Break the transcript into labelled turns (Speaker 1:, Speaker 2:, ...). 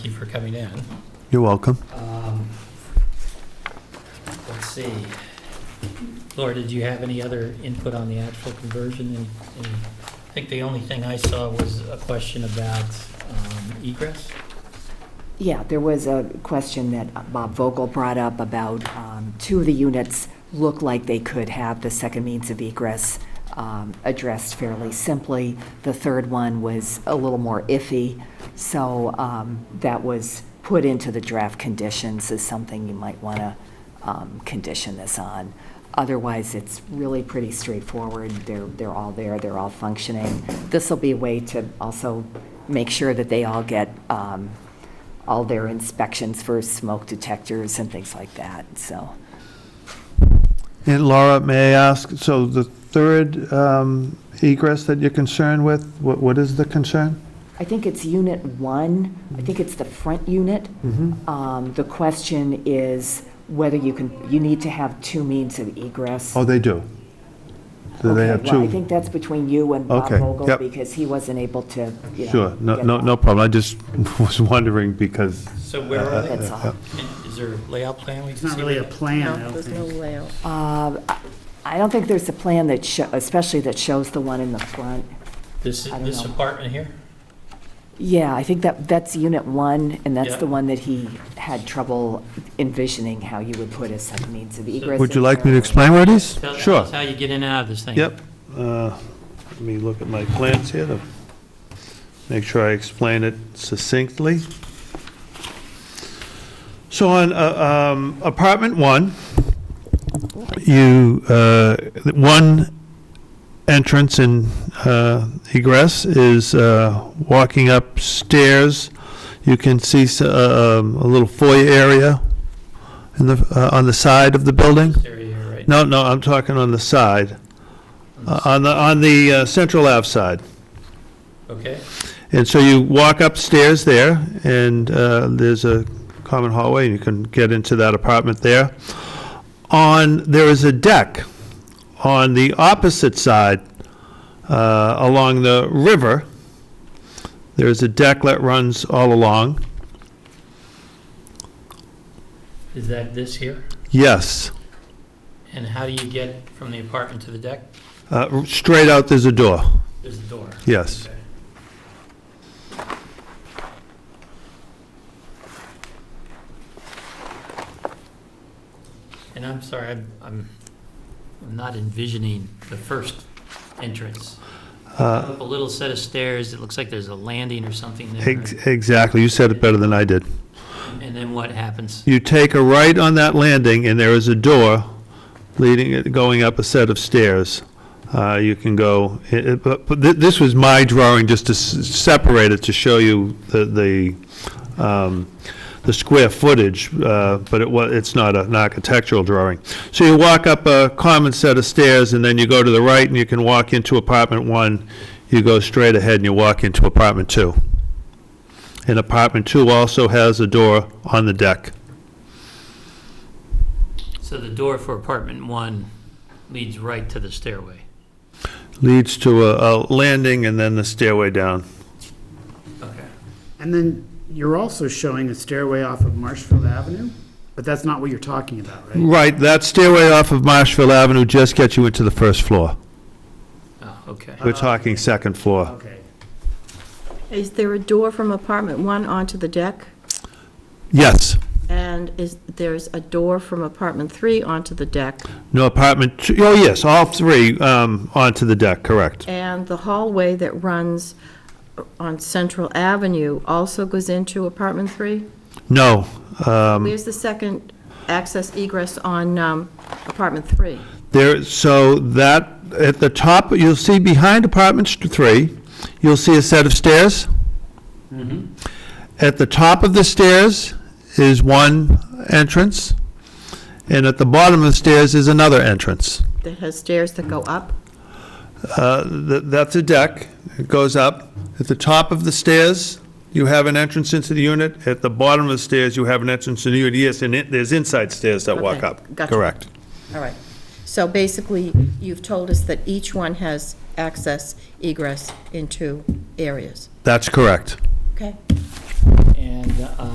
Speaker 1: Thank you for coming in.
Speaker 2: You're welcome.
Speaker 1: Um, Let's see. Laura, did you have any other input on the actual conversion? And- and I think the only thing I saw was a question about um, egress.
Speaker 3: Yeah, there was a question that Bob Vogel brought up about um, two of the units look like they could have the second means of egress um, addressed fairly simply. The third one was a little more iffy, so um, that was put into the draft conditions as something you might want to condition this on. Otherwise, it's really pretty straightforward. They're, they're all there, they're all functioning. This will be a way to also make sure that they all get um, all their inspections for smoke detectors and things like that, so.
Speaker 2: And Laura, may I ask, so the third um, egress that you're concerned with, what what is the concern?
Speaker 3: I think it's unit one, I think it's the front unit.
Speaker 2: Mm-hmm.
Speaker 3: Um, The question is whether you can, you need to have two means of egress.
Speaker 2: Oh, they do. So they
Speaker 3: Okay,
Speaker 2: have
Speaker 3: Well, I
Speaker 2: two?
Speaker 3: think that's between you and Bob
Speaker 2: Okay,
Speaker 3: Vogel,
Speaker 2: yep.
Speaker 3: because he wasn't able to, you know.
Speaker 2: Sure, no,
Speaker 3: get
Speaker 2: no
Speaker 3: that.
Speaker 2: no problem, I just was wondering because,
Speaker 1: So where are they?
Speaker 3: That's all.
Speaker 1: And Is there a layout plan? we
Speaker 4: It's
Speaker 1: can
Speaker 4: not
Speaker 1: see
Speaker 4: really a
Speaker 1: where they-
Speaker 4: plan, I
Speaker 5: No,
Speaker 4: don't
Speaker 5: there's no
Speaker 4: think.
Speaker 5: layout.
Speaker 3: Uh, I- I don't think there's a plan that, sho- especially that shows the one in the front.
Speaker 1: This,
Speaker 3: I don't
Speaker 1: this
Speaker 3: know.
Speaker 1: apartment here?
Speaker 3: Yeah, I think that, that's unit one, and that's
Speaker 1: Yeah.
Speaker 3: the one that he had trouble envisioning how you would put a second means of egress.
Speaker 2: would you
Speaker 3: in
Speaker 2: like me
Speaker 3: there.
Speaker 2: to explain what it is?
Speaker 1: Tell- tell
Speaker 2: Sure,
Speaker 1: us how you get in and out of this thing.
Speaker 2: yep. Uh, Let me look at my plans here to make sure I explain it succinctly. So on uh, um, apartment one, you, uh, one entrance and uh, egress is uh, walking upstairs. You can see s- uh, um, a little foyer area in the, uh, on the side of the building.
Speaker 1: This Area here, right?
Speaker 2: No, no, I'm talking on the side, Uh, on the, on the uh, Central Ave side.
Speaker 1: Okay,
Speaker 2: And so you walk upstairs there, and uh, there's a common hallway, and you can get into that apartment there. On, there is a deck on the opposite side, uh, along the river. There's a deck that runs all along.
Speaker 1: is that this here?
Speaker 2: Yes,
Speaker 1: And how do you get from the apartment to the deck?
Speaker 2: Uh, straight out, there's a door.
Speaker 1: There's a door.
Speaker 2: Yes.
Speaker 1: Okay. And I'm sorry, I'm, I'm I'm not envisioning the first entrance.
Speaker 2: Uh,
Speaker 1: Up a little set of stairs, it looks like there's a landing or something there.
Speaker 2: ex- Exactly, you said it better than I did.
Speaker 1: And then what happens?
Speaker 2: You take a right on that landing, and there is a door leading, going up a set of stairs. Uh, You can go, it- it- but but thi- this was my drawing, just to s- separate it, to show you the, the um, the square footage, uh, but it was, it's not an architectural drawing. So you walk up a common set of stairs, and then you go to the right, and you can walk into apartment one. You go straight ahead, and you walk into apartment two. And apartment two also has a door on the deck.
Speaker 1: So the door for apartment one leads right to the stairway.
Speaker 2: leads to a, a landing and then the stairway down.
Speaker 1: Okay.
Speaker 4: And then you're also showing a stairway off of Marshfield Avenue, but that's not what you're talking about, right?
Speaker 2: Right, that stairway off of Marshville Avenue just gets you into the first floor.
Speaker 1: Oh, okay.
Speaker 2: We're talking second floor.
Speaker 4: Okay.
Speaker 5: Is there a door from apartment one onto the deck?
Speaker 2: Yes.
Speaker 5: And is, there's a door from apartment three onto the deck?
Speaker 2: No apartment, two- oh, yes, all three um, onto the deck, correct.
Speaker 5: And the hallway that runs on Central Avenue also goes into apartment three?
Speaker 2: No, um,
Speaker 5: Where's the second access egress on um, apartment three?
Speaker 2: there, so that, at the top, you'll see behind apartment st- three, you'll see a set of stairs. Mm-hmm. At the top of the stairs is one entrance, and at the bottom of the stairs is another entrance.
Speaker 5: That has stairs that go up?
Speaker 2: Uh, th- That's a deck. It goes up. At the top of the stairs, you have an entrance into the unit. At the bottom of the stairs, you have an entrance to the unit. Yes, and it- there's inside stairs that walk
Speaker 5: Okay,
Speaker 2: up.
Speaker 5: gotcha.
Speaker 2: Correct.
Speaker 5: All right. So basically, you've told us that each one has access egress into areas.
Speaker 2: That's correct.
Speaker 5: Okay?
Speaker 1: And uh,